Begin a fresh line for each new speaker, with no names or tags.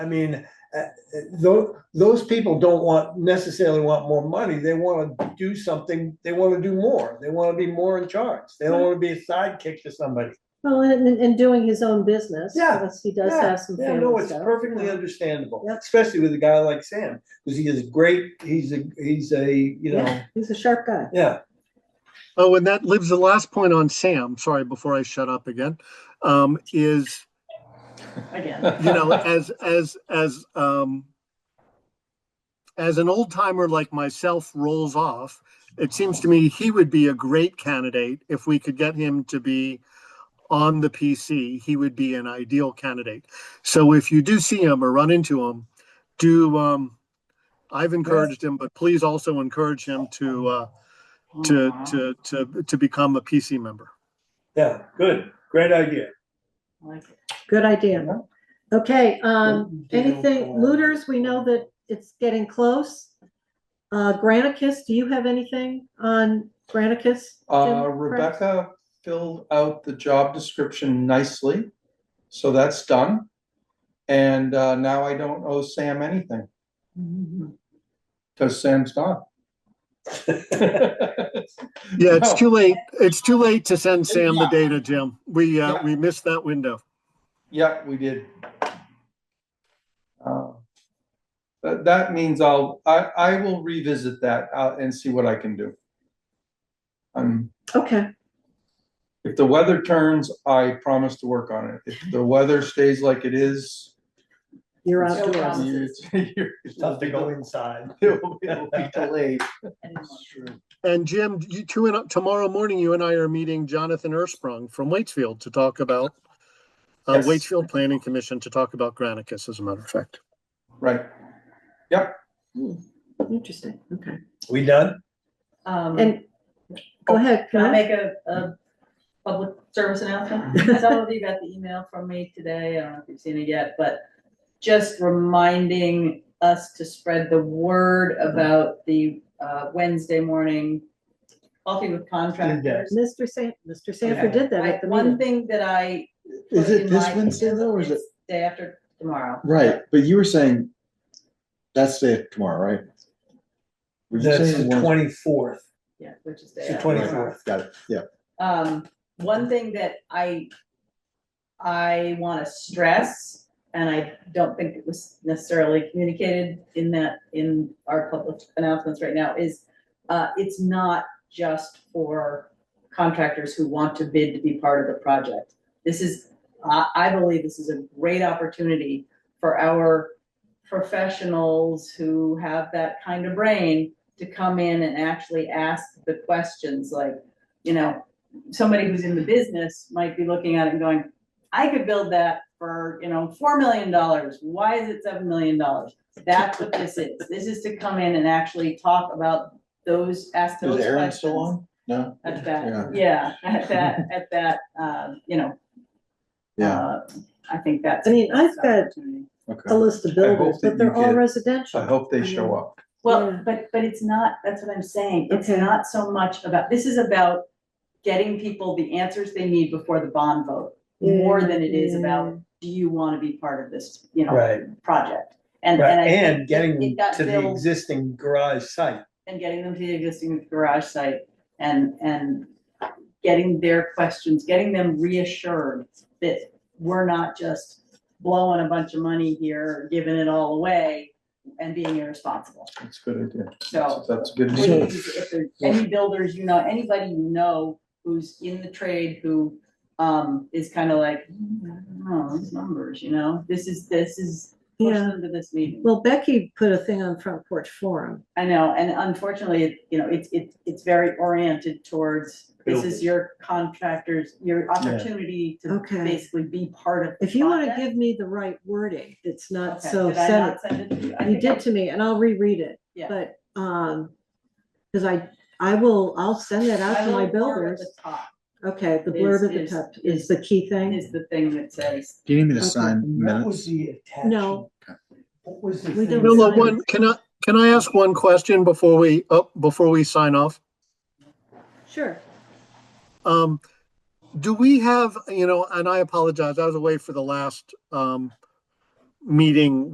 I mean, those, those people don't want, necessarily want more money, they wanna do something, they wanna do more, they wanna be more in charge, they don't wanna be a sidekick to somebody.
Well, and, and- and doing his own business,
Yeah,
because he does
yeah,
have some
Yeah, no,
family
it's
stuff.
perfectly understandable,
Yep.
especially with a guy like Sam, cause he is great, he's a, he's a, you know,
Yeah, He's a sharp guy.
yeah,
Oh, and that leaves the last point on Sam, sorry, before I shut up again, um, is,
Again.
you know, as, as, as, um, as an old timer like myself rolls off, it seems to me he would be a great candidate if we could get him to be on the PC, he would be an ideal candidate. So if you do see him or run into him, do, um, I've encouraged him, but please also encourage him to, uh, to, to, to, to become a PC member.
yeah, good, great idea.
Good idea. Okay, um,
Do you-
anything, looters, we know that it's getting close. Uh, Granicus, do you have anything on Granicus?
Uh,
Jim?
Rebecca filled out the job description nicely, so that's done. And, uh, now I don't owe Sam anything,
Mm-hmm.
cause Sam's gone.
Yeah, it's
No.
too late. It's too late to send Sam the data, Jim. We, uh, we missed that window.
Yeah, we did. Uh, That, that means I'll, I, I will revisit that, uh, and see what I can do. Um,
Okay,
if the weather turns, I promise to work on it. If the weather stays like it is.
you're
it's-
outdoors.
it's- you're-
Tough to go inside.
It'll be it'll be delayed.
And Jim, you two, and tomorrow morning, you and I are meeting Jonathan Ersprung from Waitsfield to talk about uh,
Yes.
Waitsfield Planning Commission to talk about Granicus, as a matter of fact.
Right.
Interesting, okay.
We done?
Um,
And, go ahead,
can
Karen.
I make a, a public service announcement? Some of you got the email from me today, I don't know if you've seen it yet, but just reminding us to spread the word about the, uh, Wednesday morning coffee with contractors.
Mr. San, Mr. Sanford
Okay.
did that
I-
at the
One
meeting.
thing that I.
Is
put
it
in
this
my
Wednesday,
email,
though, or is
it's Day after tomorrow.
Right, but you were saying that's day tomorrow, right? Were you
That's
saying
the
one-
twenty-fourth.
Yeah, which is day
It's the
after tomorrow.
24th.
Got it, yeah.
Um, one thing that I, I wanna stress, and I don't think it was necessarily communicated in that, in our public announcements right now, is, uh, it's not just for contractors who want to bid to be part of the project. This is, I, I believe this is a great opportunity for our professionals who have that kind of brain to come in and actually ask the questions like, you know, somebody who's in the business might be looking at it and going, I could build that for, you know, four million dollars. Why is it seven million dollars? That's what this is. This is to come in and actually talk about those, ask those
Is
questions.
Aaron still on? No?
At
Yeah.
that, yeah, at that, at that, um, you know.
Yeah,
uh, I think that's.
I mean, I've
that's an
got-
opportunity.
A
okay.
list of builders,
that
but they're
you
all
get- I
residential.
hope they show up.
Yeah.
Well, but, but it's not, that's what I'm saying. It's
Okay.
not so much about, this is about getting people the answers they need before the bond vote. More than it is about, do you want to be part of this, you know,
Right,
project? And, and
right,
I think
and
it-
getting
it
them
got
to the
filled-
existing garage site.
And getting them to the existing garage site and, and getting their questions, getting them reassured that we're not just blowing a bunch of money here, giving it all away and being irresponsible.
That's a good idea.
So
That's a good.
Which
idea.
is, if there's any builders, you know, anybody you know who's in the trade who um is kind of like, "Hmm, I don't know, these numbers, you know, this is, this is push
Yeah,
them to this meeting.
well, Becky put a thing on Front Porch Forum.
I know, and unfortunately, it- you know, it's it's it's very oriented towards, this is your contractors, your opportunity to
Okay.
basically be part of. the
If you want to
project.
give me the right wording, it's not
Okay,
so
did I
sensitive.
not send it to you? I
You
think I-
did to me, and I'll reread it.
Yeah.
But, um, because I, I will, I'll send that out
I
to my
will forward
builders.
the top
Okay, the
Is-
blurb at the
is-
top
is-
is the key thing.
Is the thing that says,
Do you need me to
Okay.
sign
What was
minutes?
the attachment?
No.
What was the
We
thing?
don't No, no,
Nola,
Sign.
one, can I, can I ask one question before we, oh, before we sign off?
Sure.
Um, do we have, you know, and I apologize, I was away for the last, um, meeting